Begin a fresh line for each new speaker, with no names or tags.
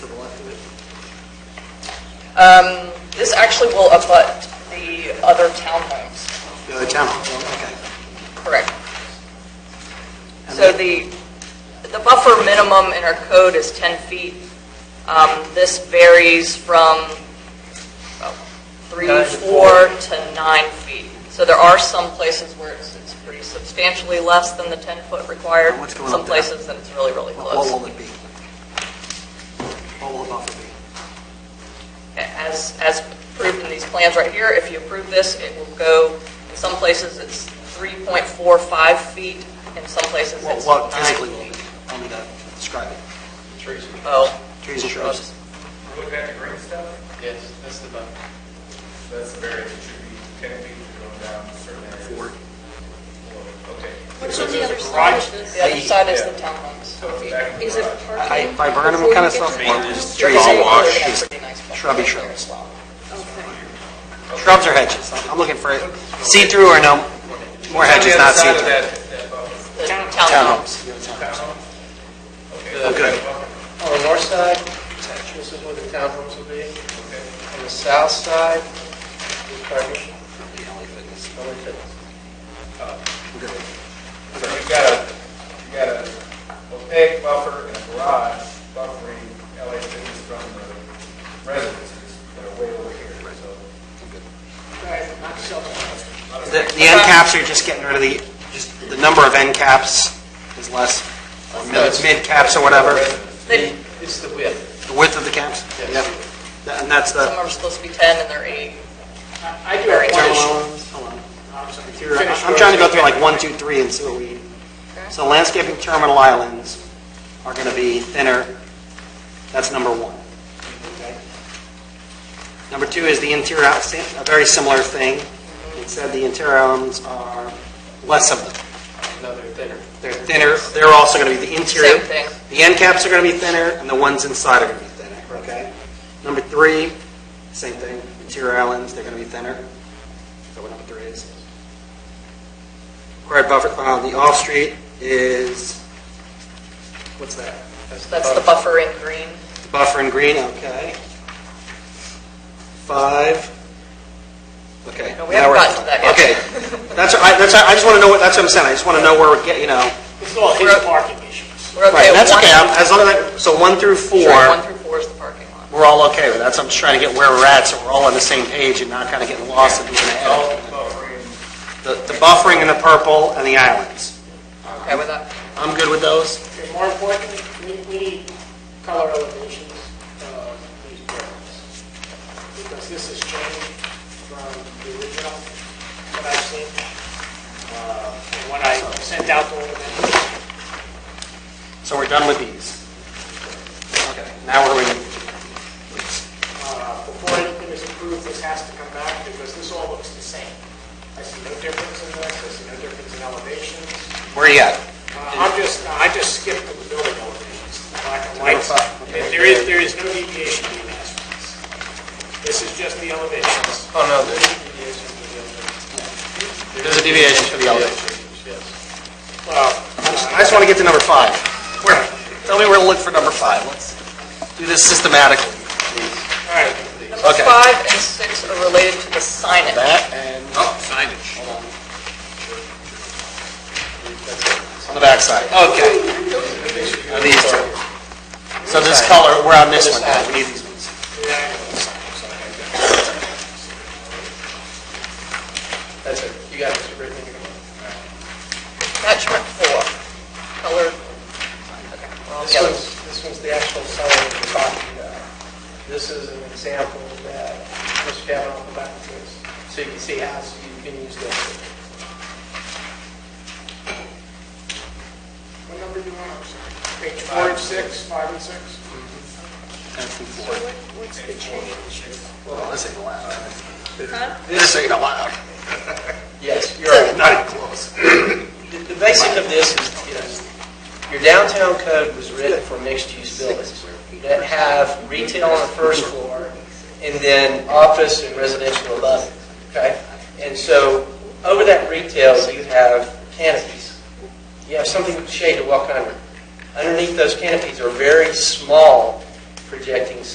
Um, This actually will abut the other townhomes,
The other town, okay.
correct? So the, the buffer minimum in our code is 10 feet. Um, This varies from about three,
Nine to
four to nine feet. So there are some places where it's it's pretty substantially less than the 10-foot required.
What's going
Some
up there?
places that it's really, really
What what
close.
will it be? What will the buffer be?
As, as approved in these plans right here, if you approve this, it will go, in some places it's 3.45 feet, in some places
What
it's nine
what physically will it
feet.
be? Tell me that, describe it.
Trees.
Oh,
Trees and shrubs.
Looking at the green stuff,
Yes, that's the buffer.
that's the variance, it should be ten feet going down certain areas.
Four.
Okay.
What's on the other side of
The
this?
other side is the townhomes.
So it's back in the
Is it
garage.
I-
parking?
By Viburnum
before
kind
you
of
get
stuff.
to-
Trees.
Car wash.
Shrubby shrubs.
Okay.
Shrubs or hedges? I'm looking for see-through or no, more hedges, not
On the
see-through.
other side of that, that buffer.
The townhomes.
Townhomes. The other townhomes.
Okay.
Oh, good.
On the north side, this is where the townhomes will be.
Okay.
On the south side, the parking. LA Fitness.
So you've got a, you've got a opaque buffer and a garage buffering LA fitness from the residences that are way over here, so.
The the end caps are just getting rid of the, just the number of end caps is less, or mid- mid caps or whatever,
They-
It's the width.
the width of the caps. Yeah. And that's uh,
Some
the.
are supposed to be 10 and they're 8.
I I do
Very
have one issue.
Hold on. I'm trying to go through like one, two, three and see what we, so landscaping terminal islands are going to be thinner. That's number one. Okay. Number two is the interior, outs- a very similar thing. It said the interior elements are less of them.
No, they're thinner.
They're thinner, they're also going to be the interior.
Same thing.
The end caps are going to be thinner, and the ones inside are going to be thinner, okay? Number three, same thing, interior islands, they're going to be thinner. Is that what number three is? Required buffer, uh, the off-street is, what's that?
That's the buffer in green.
The Buffer in green, okay. Five, okay.
No, we haven't
now we're at
gotten to that
five.
yet.
Okay, that's, I, that's, I just want to know what, that's what I'm saying, I just want to know where we're getting, you know.
It's all his parking issues.
We're
Right,
okay with
that's
one.
okay, I'm- as long as, I- so one through
Sure,
four,
One through four is the parking lot.
we're all okay with, that's, I'm just trying to get where we're at, so we're all on the same page and not kind of getting lost in the
All
head.
buffering,
The the buffering and the purple and the islands,
Okay with that?
I'm good with those?
Okay, More importantly, we- we need color elevations of these buildings. Because this has changed from the original, what I've seen, uh, and what I sent out to all of them.
So we're done with these? Okay, now we're in,
Uh, before anything is approved, this has to come back because this all looks the same. I see no difference in this, I see no difference in elevations.
where are you at?
Uh, I'm just, I just skipped the building elevations, the black and white.
Number five, okay.
There is, there is no deviation being asked for this. This is just the elevations.
Oh, no, there's,
There's a deviation for the elevation.
Well,
I just want to get to number five. Where, tell me where to look for number five, let's do this systematically.
all right,
Number
Okay.
five and six are related to the signage.
That and... Oh, signage. On the backside, okay. Now These two. So this color, we're on this one now, we need these ones.
that's it. You got it, Mr. Brittany.
Attachment four, color. Okay, we're all
This
together.
one's, this one's the actual sign that we're talking about. This is an example that Mr. Kavanaugh put back to us, so you can see how you can use this. What number do you want? I'm sorry. Page four and six, five and six?
What's the change?
Well, this ain't allowed.
Huh?
This ain't allowed.
Yes, you're right.
Not even close.
The- The basic of this is, you know, your downtown code was written for mixed-use buildings that have retail on the first floor and then office and residential above it, okay? And so over that retail, you have canopies. You have something shade to walk under. Underneath those canopies are very small projecting